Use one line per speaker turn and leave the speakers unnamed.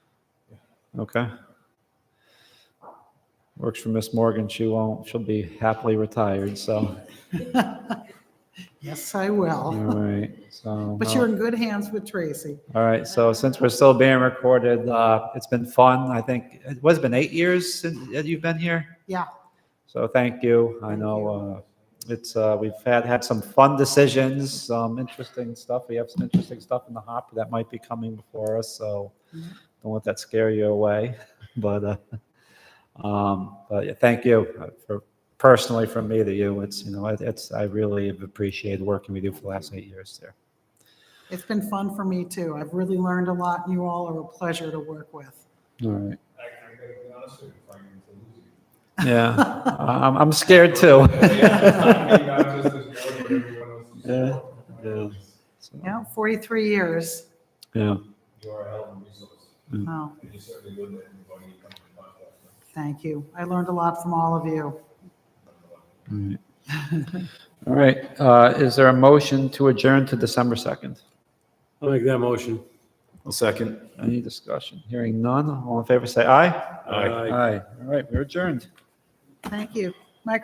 Okay. Works for Miss Morgan. She won't, she'll be happily retired, so,
Yes, I
all
will.
right, so.
But you're in good hands with Tracy.
All right, so since we're still being recorded, uh, it's been fun. I think, it has been eight years since that you've been here?
Yeah.
So thank you. I know, uh, it's, uh, we've had, had some fun decisions, some interesting stuff. We have some interesting stuff in the hopper that might be coming before us, so don't let that scare you away. But, uh, um, but yeah, thank you uh, for, personally from me to you. It's, you know, it- it's, I really have appreciated working with you for the last eight years there.
It's been fun for me too. I've really learned a lot and you all are a pleasure to work with.
All right.
I, I gotta be honest with you, if I'm to lose you.
Yeah, I- I'm, I'm scared too.
Yeah, I mean, not just this board, but everyone else is-
Yeah, yeah.
Yeah, 43 years.
Yeah,
You are a hell of a resource,
Oh,
and you certainly would let anybody you come in contact with.
thank you. I learned a lot from all of you.
all right. Uh, is there a motion to adjourn to December 2nd?
I'll make that motion.
I'll second.
Any discussion? Hearing none, all in favor, say aye.
Aye.
Aye. All right, we're adjourned.
Thank you.